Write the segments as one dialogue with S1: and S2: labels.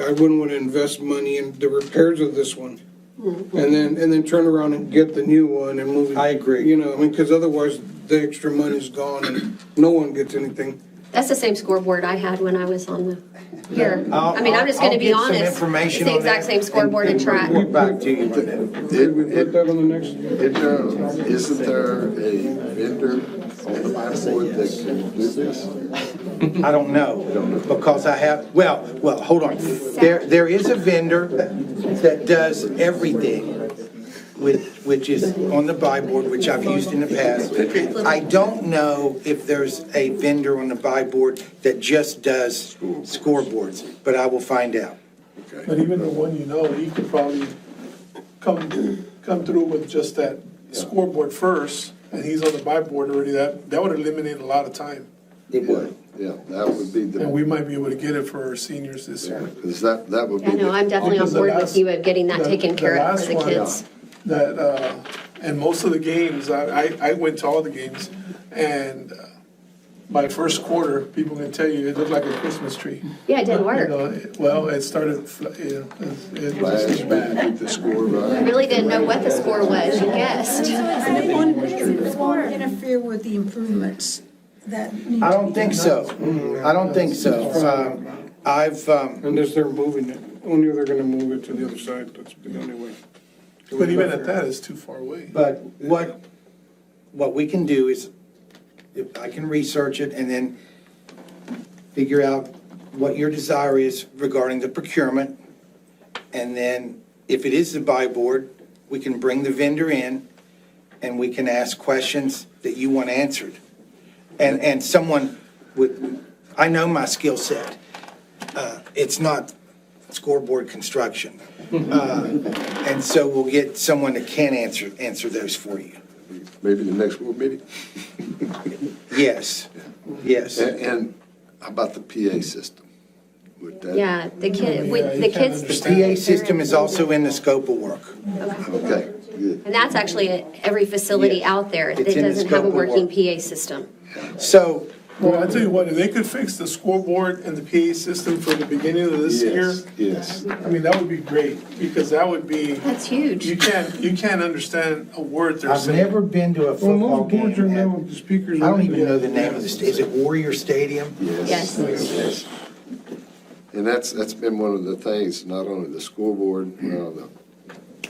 S1: I wouldn't want to invest money in the repairs of this one. And then, and then turn around and get the new one and move it.
S2: I agree.
S1: You know, I mean, because otherwise the extra money's gone and no one gets anything.
S3: That's the same scoreboard I had when I was on the, here.
S2: I'll-
S3: I mean, I'm just
S2: I'll-
S3: gonna be
S2: I'll get some
S3: honest. It's
S2: information
S3: the
S2: on
S3: exact
S2: that
S3: same scoreboard and track.
S2: Report back to you on that.
S1: Did we put
S4: It, it,
S1: that on the next?
S4: it, uh, isn't there a vendor on the board that can do this?
S2: I don't know, because I have, well, well, hold on. There, there is a vendor that does everything, which, which is on the buy board, which I've used in the past. I don't know if there's a vendor on the buy board that just does scoreboards, but I will find out.
S5: But even the one you know, he could probably come, come through with just that scoreboard first, and he's on the buy board already, that, that would eliminate a lot of time.
S2: It would.
S4: Yeah, that would be
S5: And we
S4: the,
S5: might be able to get it for our seniors this year.
S4: because that, that would be.
S3: Yeah, no,
S4: the-
S3: I'm definitely on
S5: Because the
S3: board with
S5: last-
S3: you of getting that
S5: the-
S3: taken
S5: the
S3: care of for
S5: last
S3: the
S5: one, uh,
S3: kids.
S5: That, uh, and most of the games, I, I, I went to all the games, and uh, by first quarter, people can tell you, it looked like a Christmas tree.
S3: Yeah, it didn't
S5: You
S3: work.
S5: know, it- Well, it started, fl- yeah, it it was
S4: Last
S5: just
S4: week,
S5: bad.
S4: get the score right.
S3: I really didn't know what the score was, you guessed.
S6: I didn't want, it won't interfere with the improvements that need to be
S2: I don't think
S6: done.
S2: so. I don't think so. Um, I've, um,
S1: Unless they're moving it, only they're gonna move it to the other side, that's the only way.
S5: But even at that, it's too far away.
S2: But what, what we can do is, if I can research it and then figure out what your desire is regarding the procurement. And then, if it is the buy board, we can bring the vendor in and we can ask questions that you want answered. And, and someone with, I know my skill set. Uh, It's not scoreboard construction. And so we'll get someone that can answer, answer those for you.
S4: Maybe the next board meeting?
S2: Yes, yes.
S4: And, and how about the PA system? Would that-
S3: Yeah, the kid, we,
S5: Yeah, you
S3: the
S5: can't
S3: kids.
S5: understand.
S2: PA system is also in the scope of work.
S4: Okay, good.
S3: And that's actually at every facility out there that
S2: It's in the
S3: doesn't have a
S2: scope of work.
S3: working PA system.
S2: So,
S5: Well, I tell you what, if they could fix the scoreboard and the PA system for the beginning of this year,
S4: Yes, yes.
S5: I mean, that would be great, because that would be,
S3: That's
S5: you
S3: huge.
S5: can't, you can't understand a word they're
S2: I've
S5: saying.
S2: never been to a
S1: Well,
S2: football
S1: most boards are
S2: game.
S1: now
S2: at-
S1: with the speakers.
S2: I don't even know the name of the, sta- is it Warrior Stadium?
S3: Yes.
S4: Yes. And that's, that's been one of the things, not only the scoreboard, you know, the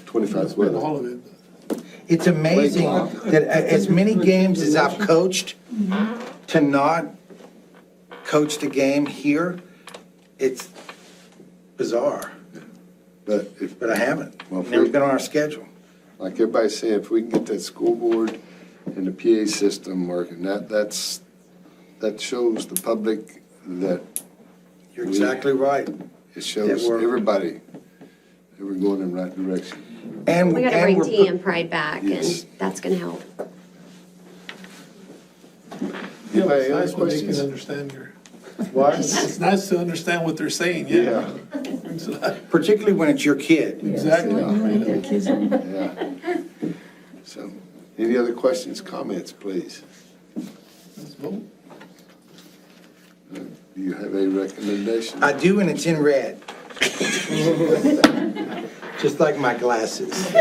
S4: 25th
S5: But
S4: weather.
S5: all of it.
S2: It's amazing that a- as many games as I've coached,
S1: mm-hmm.
S2: to not coach the game here, it's bizarre,
S4: But if,
S2: but I haven't.
S4: Well, if
S2: Never
S4: we-
S2: been on our schedule.
S4: like everybody said, if we can get that school board and the PA system working, that, that's, that shows the public that
S2: You're
S4: We-
S2: exactly right.
S4: it shows
S2: That we're-
S4: everybody that we're going in the right direction.
S2: And,
S3: We gotta
S2: and
S3: bring
S2: we're.
S3: T and Pride back and
S4: Yes.
S3: that's gonna help.
S5: You know,
S4: Anybody
S5: it's
S4: other
S5: nice when they can
S4: questions?
S5: understand your,
S2: What?
S5: it's nice to understand what they're saying, yeah.
S2: Particularly when it's your kid.
S5: Exactly.
S4: Yeah. So, any other questions, comments, please?
S5: Let's vote.
S4: Do you have a recommendation?
S2: I do, and it's in red. Just like my glasses.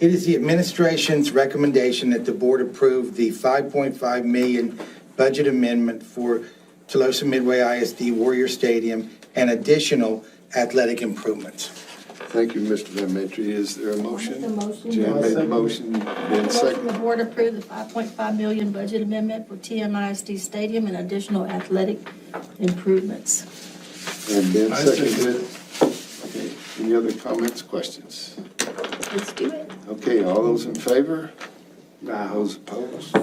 S2: It is the administration's recommendation that the board approve the 5.5 million budget amendment for Tolosa Midway ISD Warrior Stadium and additional athletic improvements.
S4: Thank you, Mr. Van Matry. Is there a motion?
S7: I'll make the motion.
S4: Jan
S7: I'll
S4: made the
S5: second.
S4: motion, Ben
S7: Motion the
S4: second.
S7: board approve the 5.5 million budget amendment for TMISD Stadium and additional athletic improvements.
S4: And Ben
S5: I second.
S4: seconded. it. Okay. Any other comments, questions?
S3: Let's do it.
S4: Okay, all those in favor? Those opposed?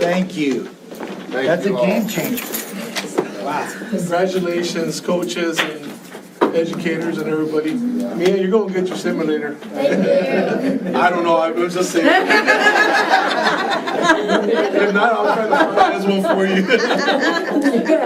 S2: Thank you.
S4: Thank
S2: That's a
S4: you all.
S2: game changer.
S5: Congratulations, coaches and educators and everybody. Mia, you're gonna get your simulator. I don't know, I was just saying. If not, I'll try to find this one for you.